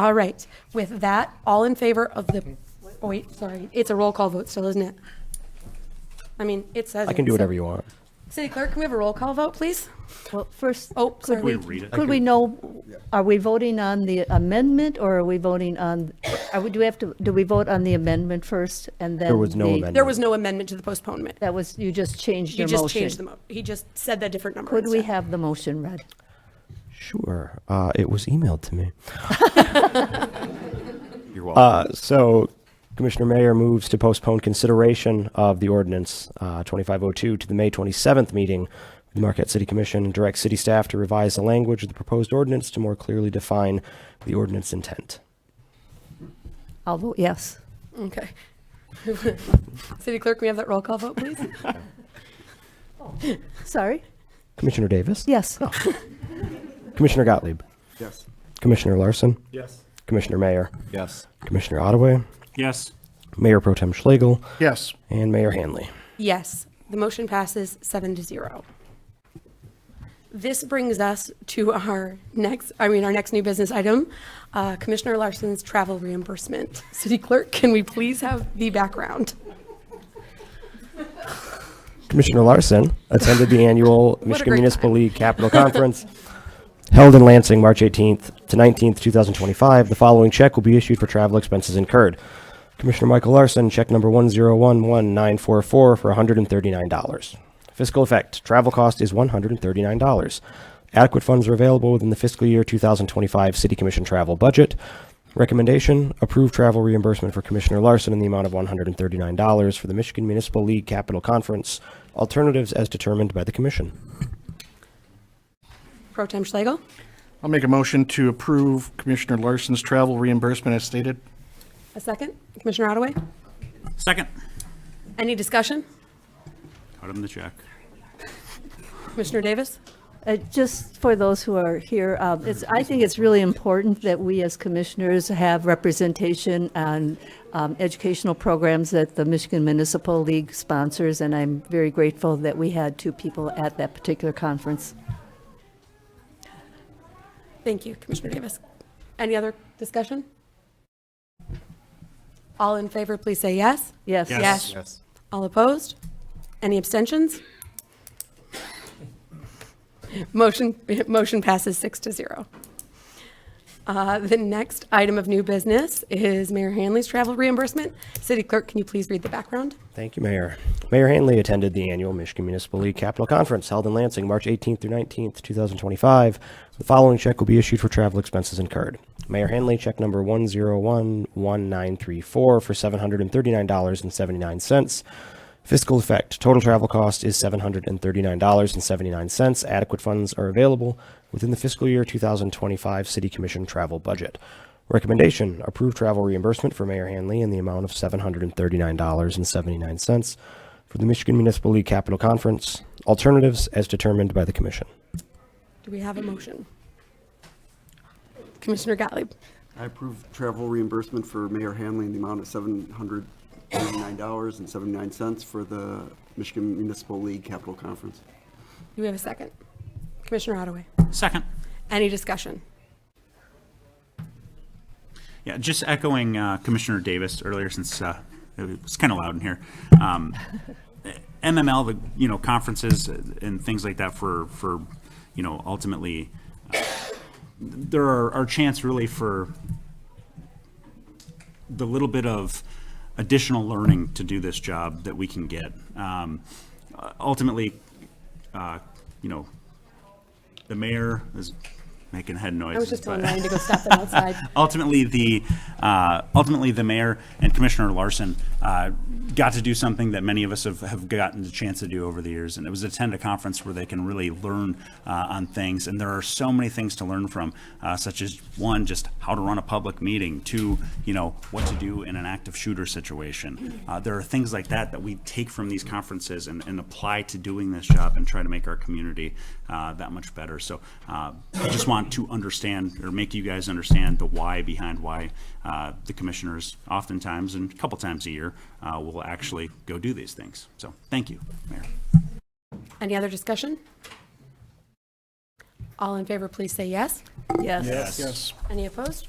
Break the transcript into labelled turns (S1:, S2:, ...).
S1: All right, with that, all in favor of the, oh wait, sorry, it's a roll call vote still, isn't it? I mean, it says.
S2: I
S1: it,
S2: can do
S1: so-
S2: whatever you want.
S1: City clerk, can we have a roll call vote, please?
S3: Well, first,
S1: Oh,
S3: could
S1: sorry.
S3: we,
S1: Can
S4: we read it?
S3: could we know, are we voting on the amendment or are we voting on, are we, do we have to, do we vote on the amendment first and then?
S2: There was no
S3: the-
S2: amendment.
S1: There was no amendment to the postponement.
S3: That was, you just changed
S1: You
S3: your
S1: just changed the
S3: motion.
S1: mo, he just said that different number.
S3: Could we
S1: instead.
S3: have the motion read?
S2: Sure. Uh, it was emailed to me.
S4: You're welcome.
S2: Uh, so Commissioner Mayor moves to postpone consideration of the ordinance uh, 2502 to the May 27th meeting. The Marquette City Commission and direct city staff to revise the language of the proposed ordinance to more clearly define the ordinance intent.
S3: I'll vote yes.
S1: Okay. City clerk, can we have that roll call vote, please?
S3: Sorry?
S2: Commissioner Davis?
S3: Yes.
S2: Commissioner Gottlieb?
S4: Yes.
S2: Commissioner Larson?
S4: Yes.
S2: Commissioner Mayor?
S4: Yes.
S2: Commissioner Ottaway?
S4: Yes.
S2: Mayor Pro Tem Schlegel?
S4: Yes.
S2: And Mayor Hanley?
S1: Yes, the motion passes seven to zero. This brings us to our next, I mean, our next new business item, uh, Commissioner Larson's travel reimbursement. City Clerk, can we please have the background?
S2: Commissioner Larson attended the annual Michigan
S1: great
S2: Municipal League Capital Conference held in Lansing, March 18th to 19th, 2025. The following check will be issued for travel expenses incurred. Commissioner Michael Larson, check number 1011944 for $139. Fiscal effect, travel cost is $139. Adequate funds are available within the fiscal year 2025 City Commission travel budget. Recommendation, approve travel reimbursement for Commissioner Larson in the amount of $139 for the Michigan Municipal League Capital Conference, alternatives as determined by the commission.
S1: Pro Tem Schlegel?
S5: I'll make a motion to approve Commissioner Larson's travel reimbursement as stated.
S1: A second? Commissioner Ottaway?
S4: Second.
S1: Any discussion?
S4: Cut him the check.
S1: Commissioner Davis?
S3: Uh, Just for those who are here, um, it's, I think it's really important that we as commissioners have representation on um, educational programs that the Michigan Municipal League sponsors, and I'm very grateful that we had two people at that particular conference.
S1: Thank you, Commissioner Davis. Any other discussion? All in favor, please say yes.
S3: Yes.
S1: Yes.
S4: Yes.
S1: All opposed? Any abstentions? Motion, motion passes six to zero. Uh, The next item of new business is Mayor Hanley's travel reimbursement. City Clerk, can you please read the background?
S2: Thank you, Mayor. Mayor Hanley attended the annual Michigan Municipal League Capital Conference held in Lansing, March 18th through 19th, 2025. The following check will be issued for travel expenses incurred. Mayor Hanley, check number 1011934 for $739.79. Fiscal effect, total travel cost is $739.79. Adequate funds are available within the fiscal year 2025 City Commission travel budget. Recommendation, approve travel reimbursement for Mayor Hanley in the amount of $739.79 for the Michigan Municipal League Capital Conference, alternatives as determined by the commission.
S1: Do we have a motion? Commissioner Gottlieb,
S6: I approve travel reimbursement for Mayor Hanley in the amount of $789.79 for the Michigan Municipal League Capital Conference.
S1: do we have a second? Commissioner Ottaway,
S7: Second.
S1: any discussion?
S7: Yeah, just echoing uh, Commissioner Davis earlier, since uh, it was kind of loud in here. Um, MML, the, you know, conferences and things like that for, for, you know, ultimately, uh, there are, are chance really for the little bit of additional learning to do this job that we can get. Um, Ultimately, uh, you know, the mayor is making head noises.
S1: I was just telling
S7: but-
S1: Ryan to go stop them outside.
S7: ultimately the uh, ultimately the mayor and Commissioner Larson uh, got to do something that many of us have, have gotten the chance to do over the years, and it was attend a conference where they can really learn uh, on things. And there are so many things to learn from, uh, such as one, just how to run a public meeting; two, you know, what to do in an active shooter situation. Uh, there are things like that that we take from these conferences and, and apply to doing this job and try to make our community uh, that much better. So uh, I just want to understand or make you guys understand the why behind why uh, the commissioners oftentimes and a couple times a year uh, will actually go do these things. So thank you, Mayor.
S1: Any other discussion? All in favor, please say yes.
S3: Yes.
S1: Any opposed?